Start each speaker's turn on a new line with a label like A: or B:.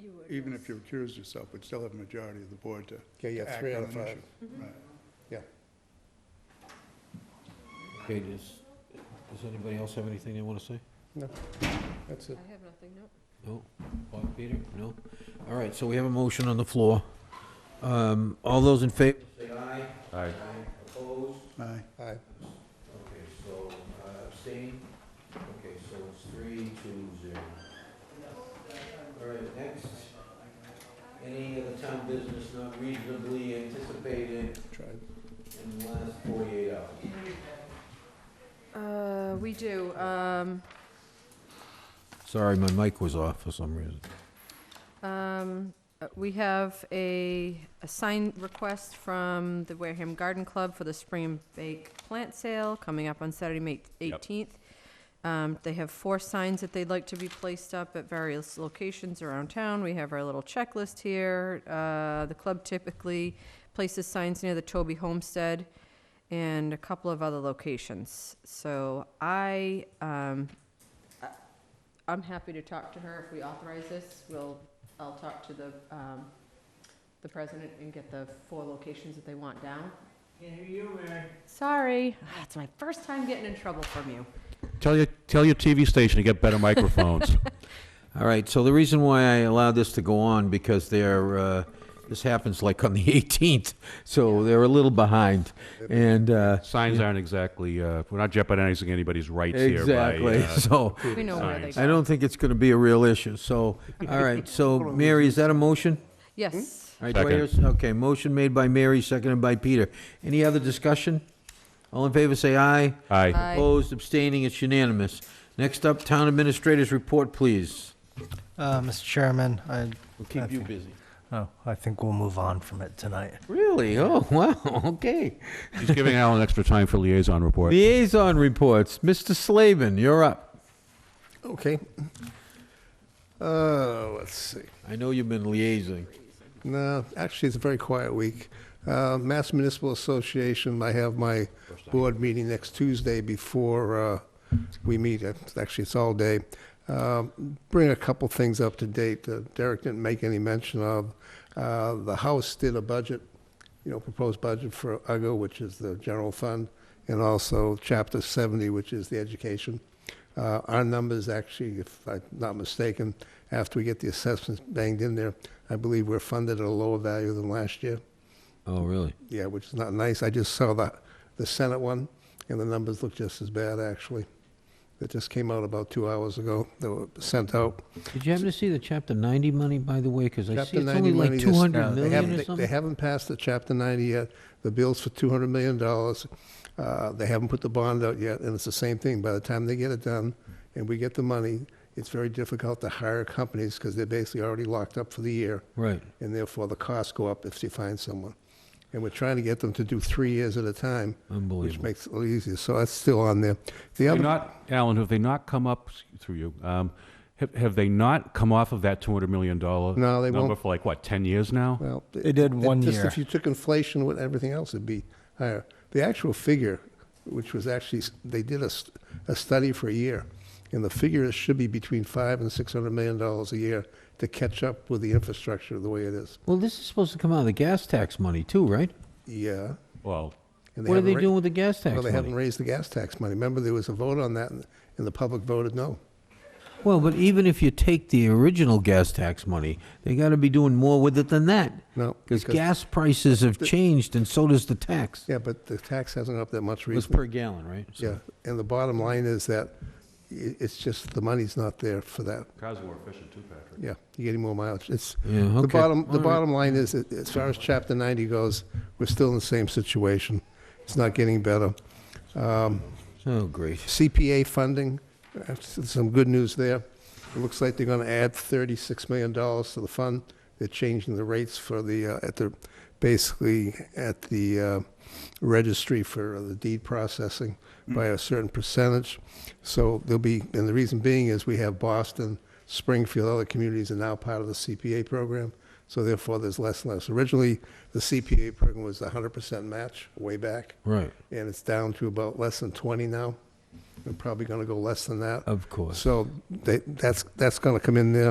A: you would.
B: even
A: yes.
B: if you recused yourself, we'd still have a majority of the board to
C: Okay, yeah,
B: act
C: three out
B: on
C: of
B: an
C: five.
B: issue.
A: Mm-hmm.
B: Right.
D: Okay, does, does anybody else have anything they want to say?
C: That's it.
A: I have nothing, no.
D: No? Bob, Peter? No? All right, so we have a motion on the floor. Um, all those in favor? Say aye.
E: Aye.
D: Opposed?
B: Aye.
C: Aye.
D: Okay, so uh, abstain? Okay, so it's three, two, zero. All right, next. Any other town business not reasonably anticipated
C: Tried.
D: in the last forty-eight hours?
A: Uh, we do, um,
D: Sorry, my mic was off for some reason.
A: um, uh, we have a, a sign request from the Wareham Garden Club for the spring bake plant sale coming up on Saturday, May
E: Yep.
A: eighteenth. Um, they have four signs that they'd like to be placed up at various locations around town. We have our little checklist here. Uh, the club typically places signs near the Toby Homestead and a couple of other locations. So I, um, I- I'm happy to talk to her if we authorize this. We'll, I'll talk to the, um, the president and get the four locations that they want down. Sorry, Ah, it's my first time getting in trouble from you.
E: Tell your, tell your TV station to get better microphones.
D: All right, so the reason why I allowed this to go on, because they're, uh, this happens like on the 18th, so they're a little behind, and, uh,
E: Signs aren't exactly, uh, we're not jeopardizing anybody's rights here by.
D: exactly,
E: uh,
D: so,
A: We know where they
E: signs.
D: I
A: go.
D: don't think it's gonna be a real issue, so, all right, so, Mary, is that a motion?
A: Yes.
D: All right, do I hear- Okay, motion made by Mary, seconded by Peter. Any other discussion? All in favor, say aye.
E: Aye.
A: Aye.
D: Opposed, abstaining, it's unanimous. Next up, Town Administrator's Report, please.
F: Uh, Mr. Chairman, I,
D: We'll keep you busy.
F: oh, I think we'll move on from it tonight.
D: Really? Oh, wow, okay.
E: He's giving Alan extra time for liaison report.
D: Liaison reports. Mr. Slavin, you're up.
C: Okay. Uh, let's see.
D: I know you've been liaising.
C: No, actually, it's a very quiet week. Uh, Mass Municipal Association, I have my board meeting next Tuesday before uh, we meet. It's- Actually, it's all day. Uh, Bring a couple things up to date that Derek didn't make any mention of. Uh, The House did a budget, you know, proposed budget for UGO, which is the general fund, and also Chapter 70, which is the education. Uh, Our numbers, actually, if I'm not mistaken, after we get the assessments banged in there, I believe we're funded at a lower value than last year.
D: Oh, really?
C: Yeah, which is not nice. I just saw the, the Senate one, and the numbers look just as bad, actually. That just came out about two hours ago. They were sent out.
D: Did you happen to see the Chapter 90 money, by the way? Because I see
C: Chapter
D: it's
C: 90
D: only like
C: money is- uh,
D: 200
C: they
D: million
C: haven't-
D: or
C: they- They
D: something?
C: haven't passed the Chapter 90 yet. The bill's for $200 million. Uh, They haven't put the bond out yet, and it's the same thing. By the time they get it done and we get the money, it's very difficult to hire companies because they're basically already locked up for the year.
D: Right.
C: and therefore the costs go up if you find someone. And we're trying to get them to do three years at a time, which
D: Unbelievable.
C: makes it a little easier. So that's still on there. The
E: Have
C: other,
E: they not, Alan, have they not come up, through you, um, have, have they not come off of that $200 million?
C: No, they
E: Number
C: won't. Uh,
E: for like, what, 10 years now?
C: well,
F: They did one
C: just
F: year.
C: If you took inflation with everything else, it'd be higher. The actual figure, which was actually s- they did a, s- a study for a year, and the figure should be between five and six hundred million dollars a year to catch up with the infrastructure the way it is.
D: Well, this is supposed to come out of the gas tax money, too, right?
C: Yeah.
E: Well,
C: And
D: What are
C: haven't
D: they
C: ra-
D: doing with the gas tax
C: Well, they haven't
D: money?
C: raised the gas tax money. Remember, there was a vote on that, and and the public voted no.
D: Well, but even if you take the original gas tax money, they got to be doing more with it than that.
C: No,
D: Because
C: because-
D: gas prices have changed, and so does the tax.
C: Yeah, but the tax hasn't gone up that much
D: It was
C: recently.
D: per gallon, right? So-
C: Yeah, and the bottom line is that i- it's just, the money's not there for that.
E: cars are more efficient too, Patrick.
C: Yeah, you're getting more mileage. It's,
D: Yeah,
C: the
D: okay.
C: bottom,
D: All
C: the
D: right.
C: bottom line is, that as far as Chapter 90 goes, we're still in the same situation. It's not getting better. Um,
D: Oh, great.
C: CPA funding, uh, s- some good news there. It looks like they're going to add $36 million to the fund. They're changing the rates for the, uh, at the, basically at the uh, registry for the deed processing by a certain percentage. So there'll be, and the reason being is we have Boston, Springfield, other communities are now part of the CPA program. So therefore, there's less and less. Originally, the CPA program was 100% match way back
D: Right,
C: and it's down to about less than 20 now. We're probably going to go less than that.
D: of course.
C: So they, that's, that's going to come in there.